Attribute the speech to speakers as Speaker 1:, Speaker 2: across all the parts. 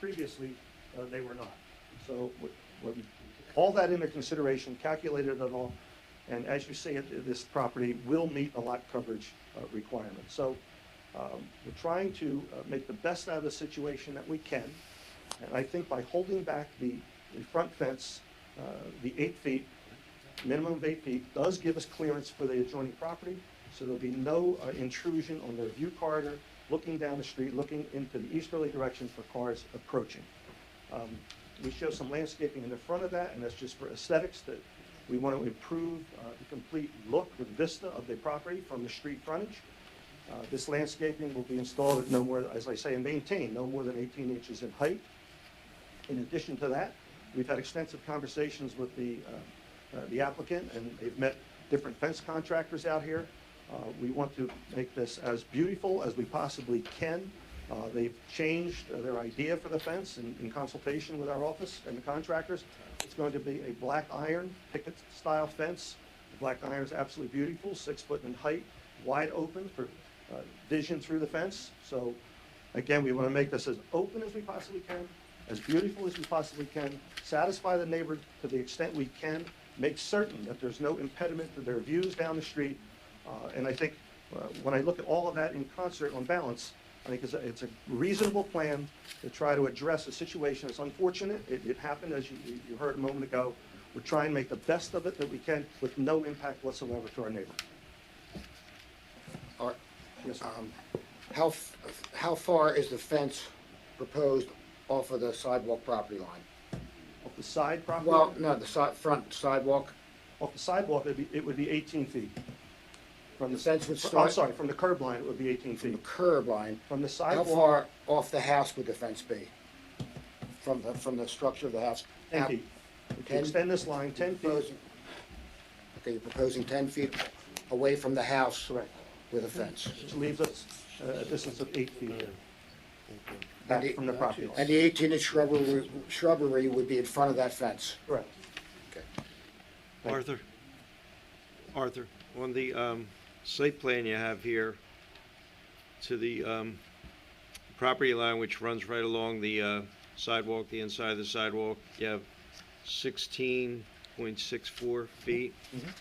Speaker 1: previously, uh, they were not. So, w- w- all that into consideration, calculated it all, and as you see it, this property will meet a lot coverage uh, requirement. So, um, we're trying to uh, make the best out of the situation that we can, and I think by holding back the, the front fence, uh, the eight feet, minimum of eight feet, does give us clearance for the adjoining property, so there'll be no uh, intrusion on their view corridor, looking down the street, looking into the easterly direction for cars approaching. Um, We show some landscaping in the front of that, and that's just for aesthetics, that we want to improve uh, the complete look, the vista of the property from the street frontage. Uh, This landscaping will be installed at no more, as I say, and maintained, no more than 18 inches in height. In addition to that, we've had extensive conversations with the, uh, uh, the applicant, and they've met different fence contractors out here. Uh, We want to make this as beautiful as we possibly can. Uh, They've changed uh, their idea for the fence in in consultation with our office and the contractors. It's going to be a black iron picket-style fence. The black iron is absolutely beautiful, six foot in height, wide open for uh, vision through the fence. So Again, we want to make this as open as we possibly can, as beautiful as we possibly can, satisfy the neighbor to the extent we can, make certain that there's no impediment to their views down the street. Uh, And I think, uh, when I look at all of that in concert on balance, I think it's a, it's a reasonable plan to try to address a situation that's unfortunate. It, it happened, as you, you- you heard a moment ago. We're trying to make the best of it that we can with no impact whatsoever to our neighbor.
Speaker 2: Are,
Speaker 1: Yes, sir.
Speaker 2: um, how, f- how far is the fence proposed off of the sidewalk property line?
Speaker 1: Off the side property.
Speaker 2: Well, no, the si- front sidewalk,
Speaker 1: Off the sidewalk, it'd be, it would be 18 feet. From
Speaker 2: The fence would
Speaker 1: fr- I'm
Speaker 2: start-
Speaker 1: Oh, sorry, from the curb line, it would be 18
Speaker 2: from the
Speaker 1: feet.
Speaker 2: curb line,
Speaker 1: From the
Speaker 2: how
Speaker 1: sidewalk,
Speaker 2: far off the house would the fence be? From the, from the structure of the house?
Speaker 1: 10
Speaker 2: Now,
Speaker 1: feet. If you
Speaker 2: 10
Speaker 1: extend this line 10 feet,
Speaker 2: proposing- Okay, you're proposing ten feet away from the house?
Speaker 1: correct,
Speaker 2: With a fence.
Speaker 1: which leaves us uh, a distance of 8 feet back
Speaker 2: And the-
Speaker 1: from the property line.
Speaker 2: And the eighteen-inch shrubbery, shrubbery would be in front of that fence?
Speaker 1: Correct.
Speaker 2: Okay.
Speaker 1: Thank you.
Speaker 3: Arthur, Arthur, on the um, site plan you have here, to the um, property line which runs right along the uh, sidewalk, the inside of the sidewalk, you have 16.64 feet.
Speaker 1: Mm-hmm.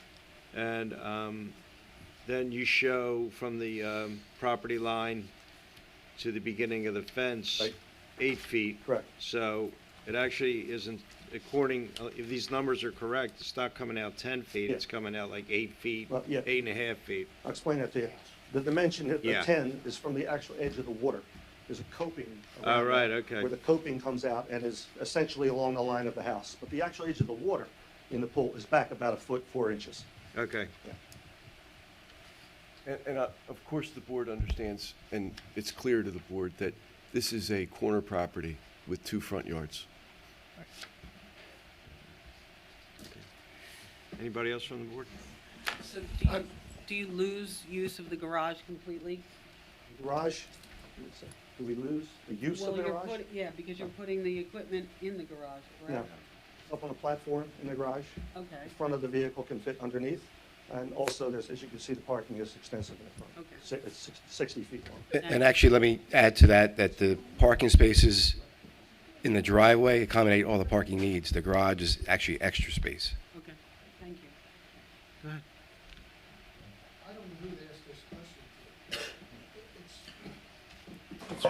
Speaker 3: And um, then you show from the um, property line to the beginning of the fence,
Speaker 1: Right.
Speaker 3: eight feet.
Speaker 1: Correct.
Speaker 3: So it actually isn't, according, uh, if these numbers are correct, it's not coming out 10 feet,
Speaker 1: Yeah.
Speaker 3: it's coming out like eight feet,
Speaker 1: Well, yeah.
Speaker 3: eight and a half feet.
Speaker 1: I'll explain that to you. The dimension of the
Speaker 3: Yeah.
Speaker 1: 10 is from the actual edge of the water. There's a coping. around
Speaker 3: All right,
Speaker 1: that,
Speaker 3: okay.
Speaker 1: Where the coping comes out and is essentially along the line of the house. But the actual edge of the water in the pool is back about a foot, 4 inches.
Speaker 3: Okay.
Speaker 4: And, and uh, of course, the board understands, and it's clear to the board, that this is a corner property with two front yards.
Speaker 3: Anybody else from the board?
Speaker 5: So do you, do you lose use of the garage completely?
Speaker 1: Garage, do we lose the use of
Speaker 5: Well,
Speaker 1: the
Speaker 5: you're
Speaker 1: garage?
Speaker 5: put- Yeah, because you're putting the equipment in the garage,
Speaker 1: Yeah,
Speaker 5: correct?
Speaker 1: up on a platform in the garage.
Speaker 5: Okay,
Speaker 1: The front of the vehicle can fit underneath. And also, there's, as you can see, the parking is extensive in the front.
Speaker 5: Okay.
Speaker 1: Si- It's six- 60 feet long.
Speaker 6: And actually, let me add to that, that the parking spaces in the driveway accommodate all the parking needs. The garage is actually extra space.
Speaker 5: okay, thank you.
Speaker 3: Go ahead.
Speaker 7: I don't know who to ask this question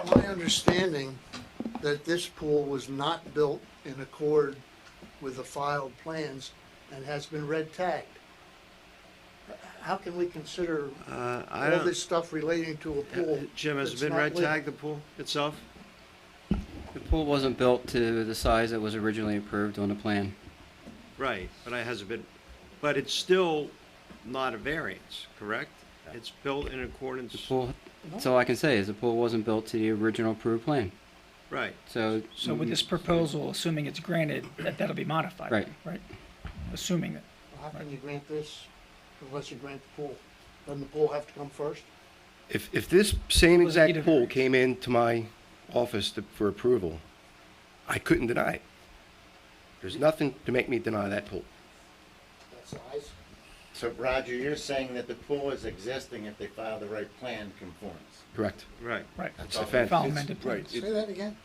Speaker 7: to. It's- It's my understanding that this pool was not built in accord with the filed plans and has been red tagged. How can we consider
Speaker 3: Uh, I
Speaker 7: all
Speaker 3: don't, uh,
Speaker 7: this stuff relating to a pool?
Speaker 3: Jim, has it
Speaker 7: that's
Speaker 3: been
Speaker 7: not
Speaker 3: red
Speaker 7: legal?
Speaker 3: tagged, the pool itself?
Speaker 8: The pool wasn't built to the size that was originally approved on the plan.
Speaker 3: Right, but it hasn't been, but it's still not a variance, correct? It's built in accordance,
Speaker 8: The pool, that's all I can say is the pool wasn't built to the original approved plan.
Speaker 3: right.
Speaker 8: So,
Speaker 9: So with this proposal, assuming it's granted, that that'll be modified,
Speaker 8: Right.
Speaker 9: right? Assuming that.
Speaker 7: How can you grant this unless you grant the pool? Doesn't the pool have to come first?
Speaker 6: If, if this same
Speaker 9: Well, you
Speaker 6: exact
Speaker 9: don't-
Speaker 6: pool came into my office to- for approval, I couldn't deny it. There's nothing to make me deny that pool.
Speaker 2: That size?
Speaker 10: So Roger, you're saying that the pool is existing if they file the right plan conforms?
Speaker 6: Correct.
Speaker 3: Right.
Speaker 9: Right.
Speaker 6: It's a
Speaker 9: File
Speaker 6: fence.
Speaker 9: amended
Speaker 4: Right,
Speaker 9: plans.
Speaker 4: it-
Speaker 2: Say that again?